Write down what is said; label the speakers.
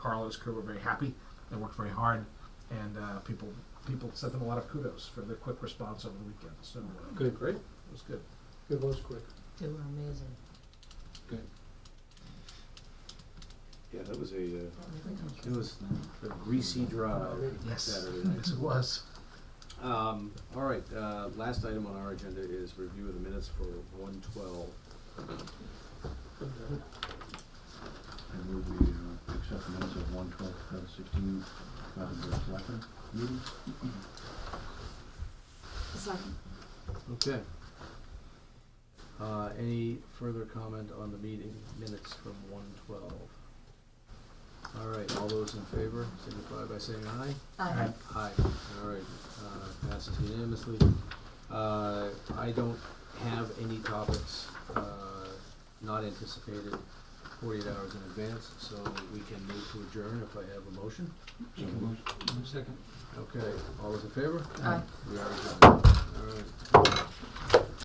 Speaker 1: Carl and his crew were very happy. They worked very hard, and uh, people people sent them a lot of kudos for their quick response over the weekend. So uh,
Speaker 2: Good.
Speaker 1: great, it was good.
Speaker 2: It was quick.
Speaker 3: They were amazing.
Speaker 4: Yeah, that was a, uh,
Speaker 5: It was a greasy drive.
Speaker 1: Yes,
Speaker 5: Saturday night.
Speaker 1: yes, it was.
Speaker 4: um, all right, uh, last item on our agenda is review of the minutes for one twelve.
Speaker 6: I move we uh, accept the minutes of one twelve, uh, sixteen, uh, the selectmen meeting.
Speaker 3: Second.
Speaker 4: Okay. Uh, any further comment on the meeting minutes from one twelve? All right, all those in favor signify by saying aye.
Speaker 1: Aye.
Speaker 4: Aye, all right, uh, passes unanimously. Uh, I don't have any topics, uh, not anticipated forty-eight hours in advance, so we can move to adjourn if I have a motion.
Speaker 6: So moved.
Speaker 5: Second.
Speaker 4: Okay, all those in favor?
Speaker 1: Aye.
Speaker 4: We are adjourned.